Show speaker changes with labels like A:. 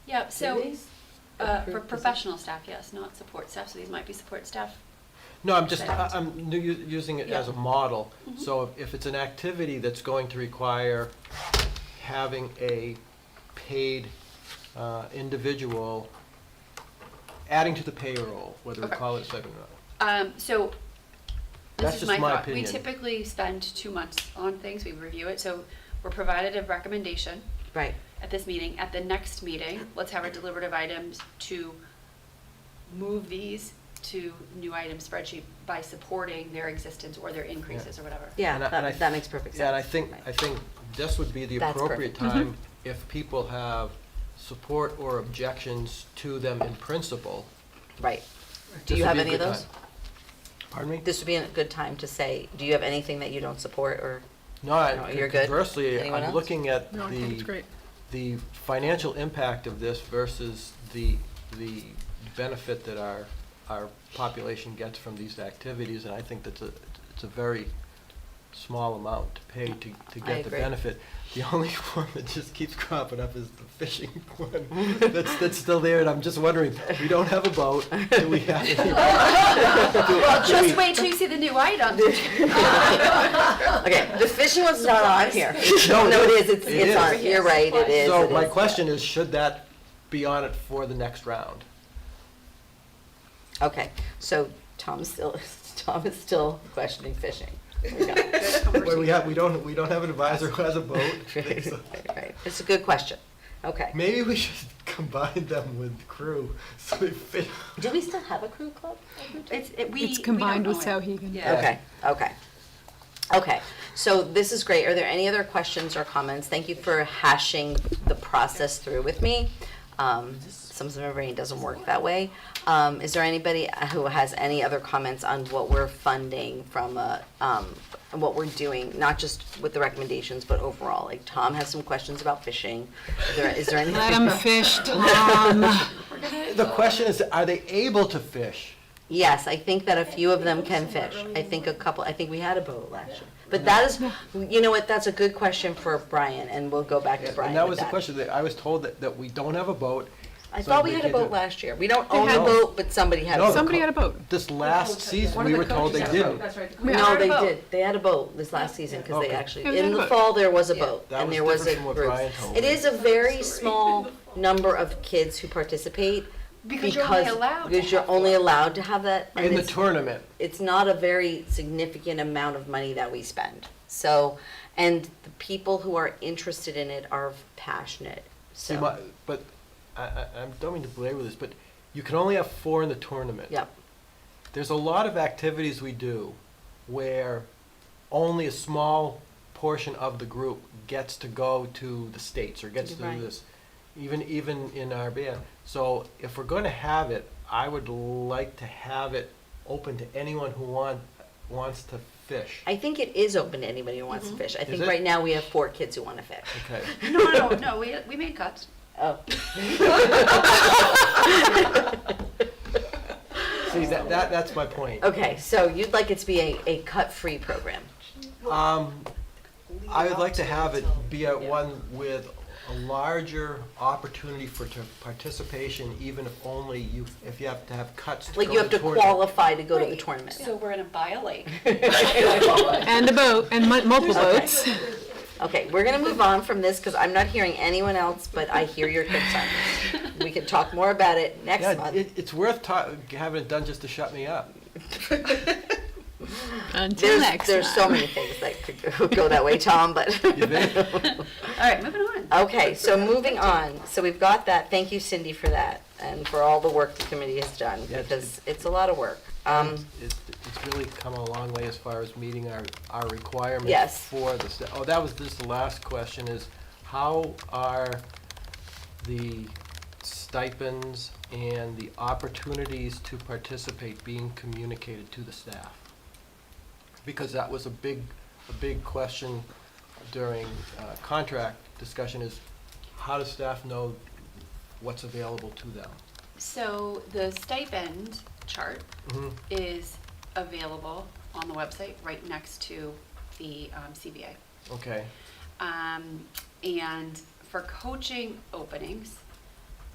A: Yeah, so,
B: these?
A: uh, for
B: Approved
A: professional staff, yes, not support staff, so these might be support staff.
C: No, I'm just, I-
A: Correct.
C: I'm nu- u- using it as a
A: Yeah.
C: model.
B: Mm-hmm.
C: So if- if it's an activity that's going to require having a paid uh, individual adding to the payroll, whether we
A: Okay.
C: call it a stipend or not.
A: Um, so, this
C: That's
A: is
C: just
A: my
C: my
A: thought. We
C: opinion.
A: typically spend two months on things, we review it, so we're provided a recommendation
B: Right,
A: at this meeting. At the next meeting, let's have our deliberative items to move these to new item spreadsheet by supporting their existence or their increases or whatever.
B: yeah,
C: And I- and I-
B: that, that makes perfect sense.
C: Yeah, and I think,
B: Right.
C: I think this would be the
B: That's
C: appropriate
B: perfect. Mm-hmm.
C: time if people have support or objections to them in principle.
B: Right. Do
C: this
B: you
C: would
B: have
C: be a
B: any of
C: good
B: those?
C: time. Pardon me?
B: This would be a good time to say, do you have anything that you don't support or?
C: No, I-
B: No, you're good?
C: conversely,
B: Anyone
C: I'm
B: else?
C: looking at
D: No, I think it's
C: the,
D: great.
C: the financial impact of this versus the, the benefit that our, our population gets from these activities, and I think that's a, it's a very small amount to pay to, to
B: I
C: get the
B: agree.
C: benefit. The only one that just keeps cropping up is the fishing one, that's, that's still there, and I'm just wondering, we don't have a boat, do we have? any- do-
A: Well,
C: do we-
A: just wait till you see the new item.
B: Okay, the fishing one's not on here.
C: No, it
B: No, it is,
C: is.
B: it's,
C: It
B: it's
C: is.
B: on, you're right, it is.
C: So
B: it
C: my
B: is.
C: question is, should that be on it for the next round?
B: Okay, so Tom's still, Tom is still questioning fishing.
C: But we have, we don't, we don't have an advisor who has a vote.
B: Right, right. It's a good question, okay.
C: Maybe we should combine them with crew, so they fit.
B: Do we still have a crew club?
A: It's, it- we,
D: It's combined
A: we
D: with
A: don't know it.
D: Sauhegan.
A: Yeah.
B: Okay, okay. Okay, so this is great. Are there any other questions or comments? Thank you for hashing the process through with me. Um, Sometimes my brain doesn't work that way. Um, Is there anybody who has any other comments on what we're funding from, a, um, what we're doing, not just with the recommendations, but overall? Like Tom has some questions about fishing. Is there- Is there any?
D: Let them fish, Tom.
C: The question is, are they able to fish?
B: Yes, I think that a few of them can fish. I think a couple, I think we had a boat last year. But that is, you know what, that's a good question for Brian, and we'll go back to Brian
C: And that
B: with
C: was the question, that I was told that, that we don't have a boat.
B: I
C: so
B: thought we
C: they
B: had a
C: can't do-
B: boat last year. We don't own a
C: had-
B: boat, but somebody had a
C: No, the
B: boat.
D: Somebody
C: co-
D: had a boat.
C: This last season,
E: One
C: we
E: of
C: were
E: the
C: told they
E: coaches had a boat.
C: didn't.
E: That's right. The
B: No,
A: had a
B: they
A: boat.
B: did. They had a boat this last season, because they
C: Okay.
B: actually,
D: It was
B: in
D: in a
B: the
D: boat.
B: fall, there was a
A: Yeah.
B: boat,
C: That
B: and
C: was
B: there was a
C: different from what
B: group.
C: Brian told
B: It
C: me.
B: is a very small number of kids who participate.
A: Because you're only allowed to
B: Because you're
A: have
B: only
A: one.
B: allowed to have that. and
C: In the
B: it's-
C: tournament,
B: it's not a very significant amount of money that we spend. So, and the people who are interested in it are passionate.
C: see,
B: So,
C: my, but, I, I, I don't mean to belabor this, but you can only have four in the tournament.
B: yep,
C: there's a lot of activities we do where only a small portion of the group gets to go to the states or gets to
B: Right.
C: do this, even even in our band. So if we're going to have it, I would like to have it open to anyone who want, wants to fish.
B: I think it is open to anybody who wants to fish. I think
C: it?
B: right now we have four kids who want to fish.
C: Okay.
A: Mm-hmm. No, no, no, no, we, we made cuts.
B: Oh,
C: See that, that that's my point.
B: okay. So you'd like it to be a, a cut-free program.
C: Um, I would like to have it be at one with a larger opportunity for t- participation, even if only you, if you have to have cuts to go
B: Like you have to
C: tournament.
B: qualify to go to the tournament.
A: So we're gonna buy a lake.
D: And a boat, and mu- multiple boats.
B: Okay, we're gonna move on from this because I'm not hearing anyone else, but I hear your concerns. We can talk more about it next
C: Yeah,
B: month.
C: it, it's worth ta- having it done just to shut me up.
D: Until
B: There's,
D: next
B: there's so
D: time.
B: many things that could go- go that way, Tom, but,
C: You think?
A: All right, moving on.
B: okay, so moving on. So we've got that. Thank you Cindy for that and for all the work the committee has done
C: Yeah, it's-
B: because it's a lot of work. Um,
C: It's, it's really come a long way as far as meeting our, our requirements.
B: Yes.
C: For this, oh, that was this, the last question is, how are the stipends and the opportunities to participate being communicated to the staff? Because that was a big, a big question during uh, contract discussion is, how does staff know what's available to them?
A: So the stipend chart
C: Mhm.
A: is available on the website right next to the um, CBA.
C: Okay.
A: Um, and for coaching openings,